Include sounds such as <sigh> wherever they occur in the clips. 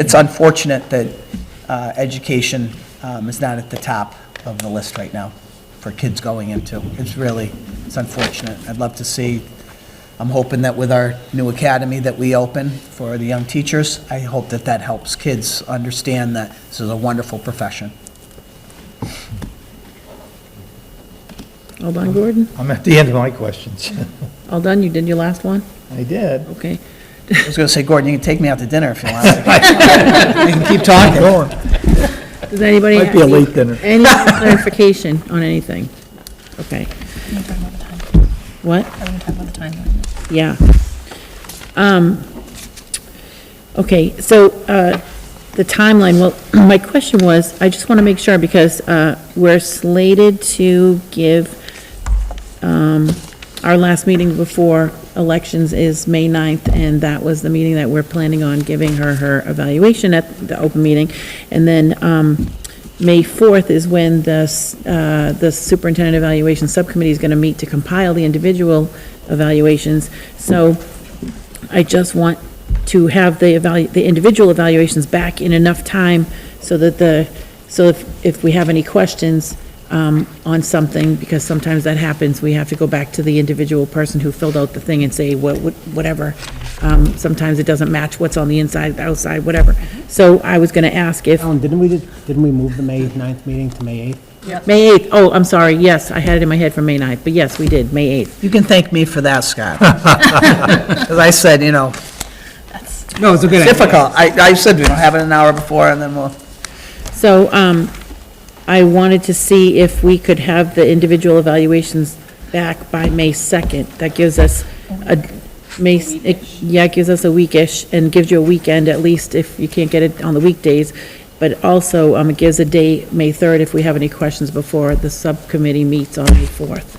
it's unfortunate that uh, education um, is not at the top of the list right now for kids going into. It's really, it's unfortunate. I'd love to see, I'm hoping that with our new academy that we open for the young teachers, I hope that that helps kids understand that this is a wonderful profession. All done, Gordon? I'm at the end of my questions. All done? You did your last one? I did. Okay. I was going to say, Gordon, you can take me out to dinner if you want. I can keep talking. Does anybody? Might be a have any- late dinner. Any clarification on anything? Okay. What? Are we gonna talk about the timeline? Yeah. Um, Okay, so uh, the timeline, well, <clears throat> my question was, I just want to make sure, because uh, we're slated to give, um, our last meeting before elections is May 9th, and that was the meeting that we're planning on giving her her evaluation at the open meeting. And then um, May 4th is when the s- uh, the superintendent evaluation subcommittee is going to meet to compile the individual evaluations. So I just want to have the evalu, the individual evaluations back in enough time so that the, so if, if we have any questions um, on something, because sometimes that happens, we have to go back to the individual person who filled out the thing and say, what, what- whatever. Um, Sometimes it doesn't match what's on the inside, the outside, whatever. So I was going to ask if, Alan, didn't we, just- didn't we move the May 9th meeting to May 8th? May 8th, oh, I'm sorry, yes, I had it in my head for May 9th, but yes, we did, May <laughs> 8th. You can thank me for that, Scott. <laughs> Because I said, you know, No, it's a good difficult. I, I said we don't have it an hour before and then we'll, So um, I wanted to see if we could have the individual evaluations back by May 2nd. That gives us a, May, it- yeah, it gives us a weekish and gives you a weekend at least if you can't get it on the weekdays. But also, um, it gives a day, May 3rd, if we have any questions before the subcommittee meets on May 4th.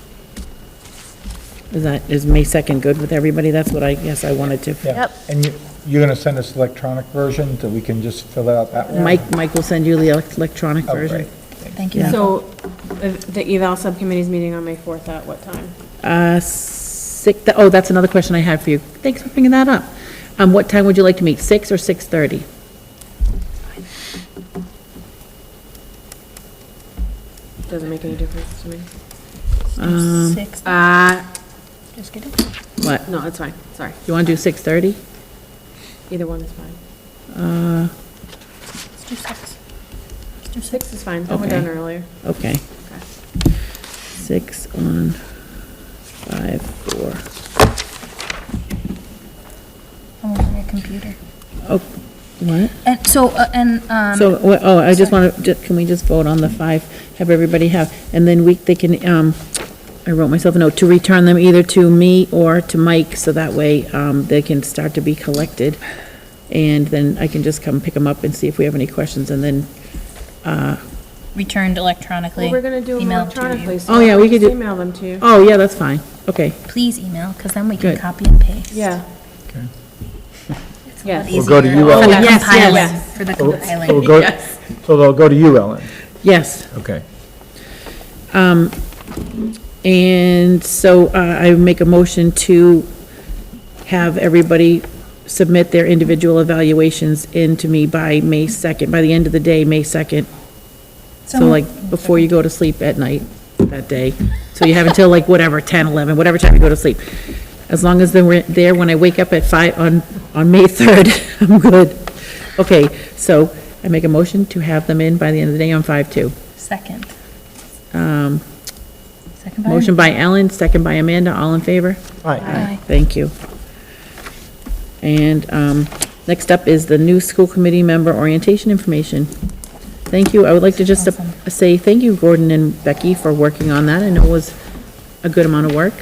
Is that, is May 2nd good with everybody? That's what I guess I wanted to. Yep. And you, you're going to send us electronic version that we can just fill out that one? Mike, Mike will send you the electronic Oh, version. great. Thank you. So uh, the the eval subcommittee's meeting on May 4th at what time? Uh, six, th- oh, that's another question I had for you. Thanks for bringing that up. Um, what time would you like to meet, six or six-thirty? Doesn't make any difference to me. Um, Six, Uh, just get it. What, no, it's fine, sorry. you want to do six-thirty? Either one is fine. Let's do six. Let's do six. Six is fine, we're Okay. done earlier. Okay. Six on five, four. I'm on your computer. Oh, what? And so, uh, and, um. So, wha- oh, I just want to, can we just vote on the five, have everybody have, and then we, they can, um, I wrote myself a note, to return them either to me or to Mike, so that way, um, they can start to be collected. And then I can just come pick them up and see if we have any questions, and then, uh, Returned electronically. Well, we're going to do them Email to you. electronically, so Oh, yeah, we I'll could just do- Email them to you. oh, yeah, that's fine, okay, Please email, because then we can Good. copy and paste. Yeah, It's a Yeah. lot We'll go to easier you for all. the Oh, yes, compiling- yes. For the So- so we'll compiling. go- Yes. So they'll go to you, Ellen. yes. Okay. Um, and so uh, I make a motion to have everybody submit their individual evaluations in to me by May 2nd, by the end of the day, May 2nd. So like, before you go to sleep at night that day. So you have until like whatever, 10, 11, whatever time you go to sleep. As long as they're there when I wake up at 5, on, on May 3rd, <laughs> I'm good. Okay, so I make a motion to have them in by the end of the day on 5/2. Second. Um, Second by. Motion by Ellen, second by Amanda, all in favor? All right. Aye. Thank you. And um, next up is the new school committee member orientation information. Thank you, I would like to just uh, Awesome. say thank you, Gordon and Becky, for working on that, I know it was a good amount of work.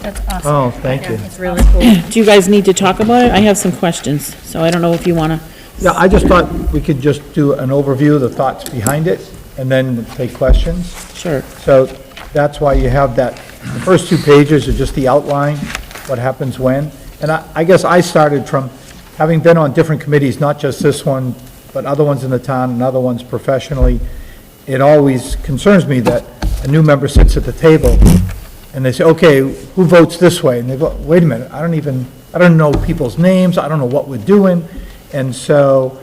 That's awesome. Oh, thank you. It's really cool. Do you guys need to talk about it? I have some questions, so I don't know if you want to, Yeah, I just thought we could just do an overview, the thoughts behind it, and then take questions. sure. So that's why you have that, the first two pages are just the outline, what happens when. And I, I guess I started from, having been on different committees, not just this one, but other ones in the town and other ones professionally, it always concerns me that a new member sits at the table and they say, okay, who votes this way? And they go, wait a minute, I don't even, I don't know people's names, I don't know what we're doing. And so